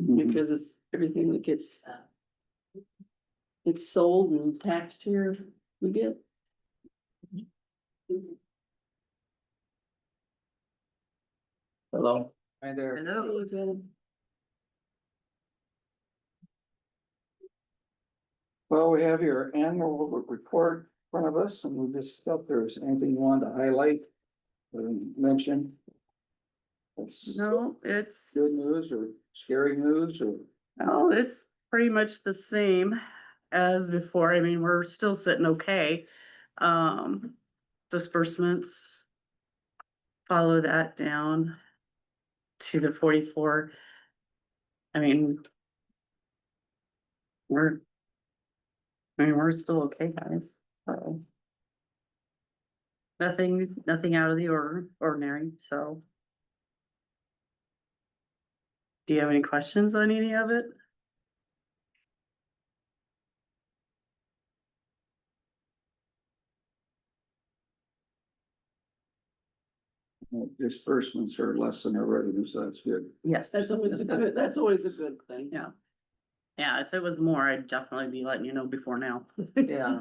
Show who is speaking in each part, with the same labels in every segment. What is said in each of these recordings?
Speaker 1: Mm-hmm.
Speaker 2: because it's everything that gets. It's sold and taxed here, we get.
Speaker 1: Hello?
Speaker 3: Hi there.
Speaker 2: Hello.
Speaker 3: Well, we have your annual report in front of us and we just stuff. There's anything you wanted to highlight? Or mention? That's
Speaker 2: No, it's,
Speaker 3: Good news or scary news or?
Speaker 2: oh, it's pretty much the same as before. I mean, we're still sitting okay. Um, disbursements. Follow that down to the forty-four. I mean. We're. I mean, we're still okay, guys, so. Nothing, nothing out of the or- ordinary, so. Do you have any questions on any of it?
Speaker 3: Well, Disbursements are less than our revenue, so that's good.
Speaker 2: Yes.
Speaker 4: That's always a good, that's always a good thing.
Speaker 2: Yeah. Yeah, if it was more, I'd definitely be letting you know before now.
Speaker 3: Yeah.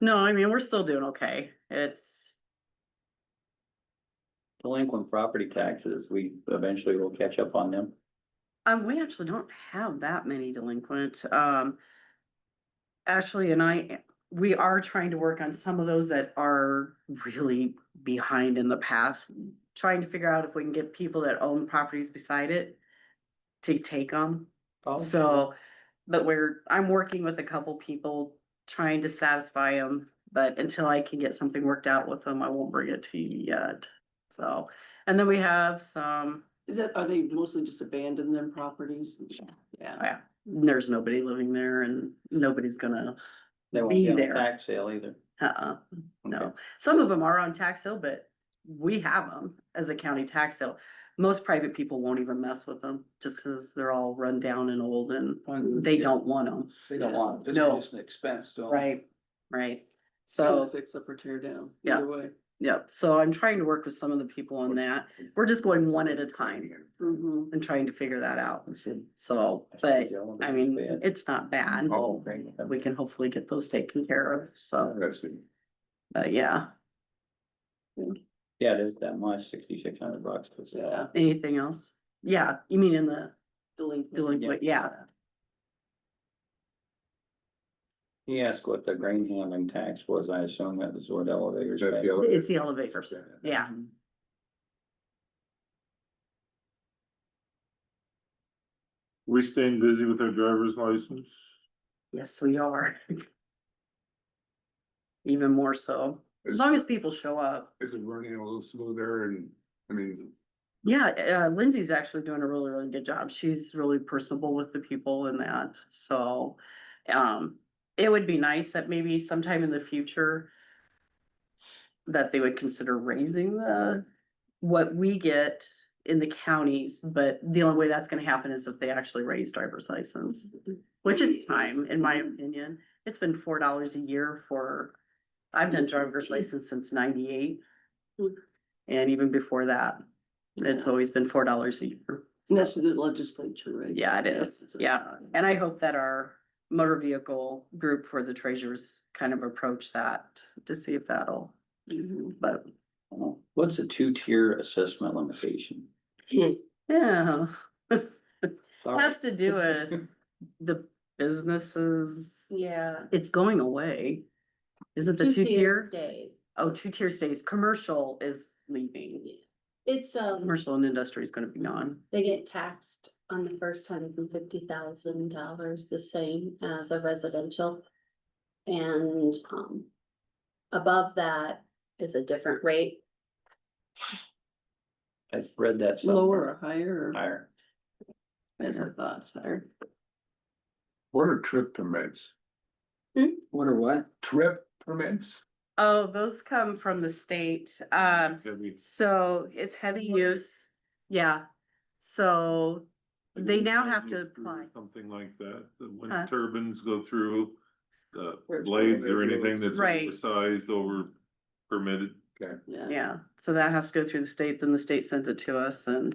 Speaker 2: No, I mean, we're still doing okay. It's,
Speaker 1: Delinquent property taxes, we eventually will catch up on them.
Speaker 2: um, we actually don't have that many delinquent, um. Ashley and I, we are trying to work on some of those that are really behind in the past. Trying to figure out if we can get people that own properties beside it to take them.
Speaker 3: Oh.
Speaker 2: So, but we're, I'm working with a couple people trying to satisfy them, but until I can get something worked out with them, I won't bring it to you yet. So, and then we have some,
Speaker 4: Is that, are they mostly just abandoned their properties?
Speaker 2: Yeah.
Speaker 4: Yeah.
Speaker 2: yeah, there's nobody living there and nobody's gonna,
Speaker 1: They won't
Speaker 2: be
Speaker 1: be on the
Speaker 2: there.
Speaker 1: tax sale either.
Speaker 2: uh-uh,
Speaker 1: Okay.
Speaker 2: no. Some of them are on tax sale, but we have them as a county tax sale. Most private people won't even mess with them just because they're all run down and old and they don't want them.
Speaker 3: They don't want it. It's
Speaker 2: No.
Speaker 3: just an expense, don't.
Speaker 2: Right, so.
Speaker 4: So fix up or tear down,
Speaker 2: Yeah.
Speaker 4: either way.
Speaker 2: Yep, so I'm trying to work with some of the people on that. We're just going one at a time
Speaker 4: Mhm.
Speaker 2: and trying to figure that out. So, but I mean, it's not bad.
Speaker 1: Oh, great.
Speaker 2: We can hopefully get those taken care of, so,
Speaker 1: Interesting.
Speaker 2: but yeah,
Speaker 1: Yeah, it is that much, sixty-six hundred bucks. 'cause, uh,
Speaker 2: anything else? Yeah, you mean in the
Speaker 4: Delinquent.
Speaker 2: delinquent, yeah,
Speaker 1: He asked what the grain handling tax was. I assume that was what elevators.
Speaker 5: That's
Speaker 1: pay.
Speaker 5: the other-
Speaker 2: it's the elevators, yeah.
Speaker 5: We staying busy with our driver's license?
Speaker 2: Yes, we are. Even more so, as long as people show up.
Speaker 5: Is it running a little smoother and, I mean,
Speaker 2: Yeah, uh, Lindsay's actually doing a really, really good job. She's really personable with the people and that, so. Um, it would be nice that maybe sometime in the future. That they would consider raising the, what we get in the counties, but the only way that's gonna happen is if they actually raise driver's license. Which it's time, in my opinion. It's been four dollars a year for, I've done driver's license since ninety-eight. And even before that. It's
Speaker 4: Yeah.
Speaker 2: always been four dollars a year.
Speaker 4: And that's the legislature, right?
Speaker 2: Yeah, it
Speaker 4: Yes,
Speaker 2: is.
Speaker 4: it's a-
Speaker 2: Yeah. And I hope that our motor vehicle group for the treasurers kind of approach that to see if that'll,
Speaker 4: Mhm.
Speaker 2: but
Speaker 1: Uh-huh. What's a two-tier assessment limitation?
Speaker 2: yeah.
Speaker 1: Sorry.
Speaker 2: Has to do with the businesses.
Speaker 6: Yeah.
Speaker 2: It's going away. Is it the two
Speaker 6: two-tier
Speaker 2: tier?
Speaker 6: Day.
Speaker 2: Oh, two tier stays. Commercial is leaving.
Speaker 6: It's, um,
Speaker 2: Commercial and industry is gonna be gone.
Speaker 6: they get taxed on the first hundred and fifty thousand dollars, the same as a residential. And, um, above that is a different rate.
Speaker 1: I read that. somewhere.
Speaker 4: Lower or higher, or-
Speaker 1: Higher.
Speaker 4: as I thought, it's higher.
Speaker 5: what are trip permits? Hmm?
Speaker 3: What or what?
Speaker 5: Trip permits?
Speaker 2: Oh, those come from the state. Um,
Speaker 5: That means
Speaker 2: So it's heavy use, yeah, so they now have to apply. Uh.
Speaker 5: Something like that, that when
Speaker 2: Huh?
Speaker 5: turbines go through, uh,
Speaker 4: Or-
Speaker 5: blades or anything that's
Speaker 2: Right.
Speaker 5: oversized over permitted.
Speaker 2: yeah, so that has to go through the state, then the state sends it to us and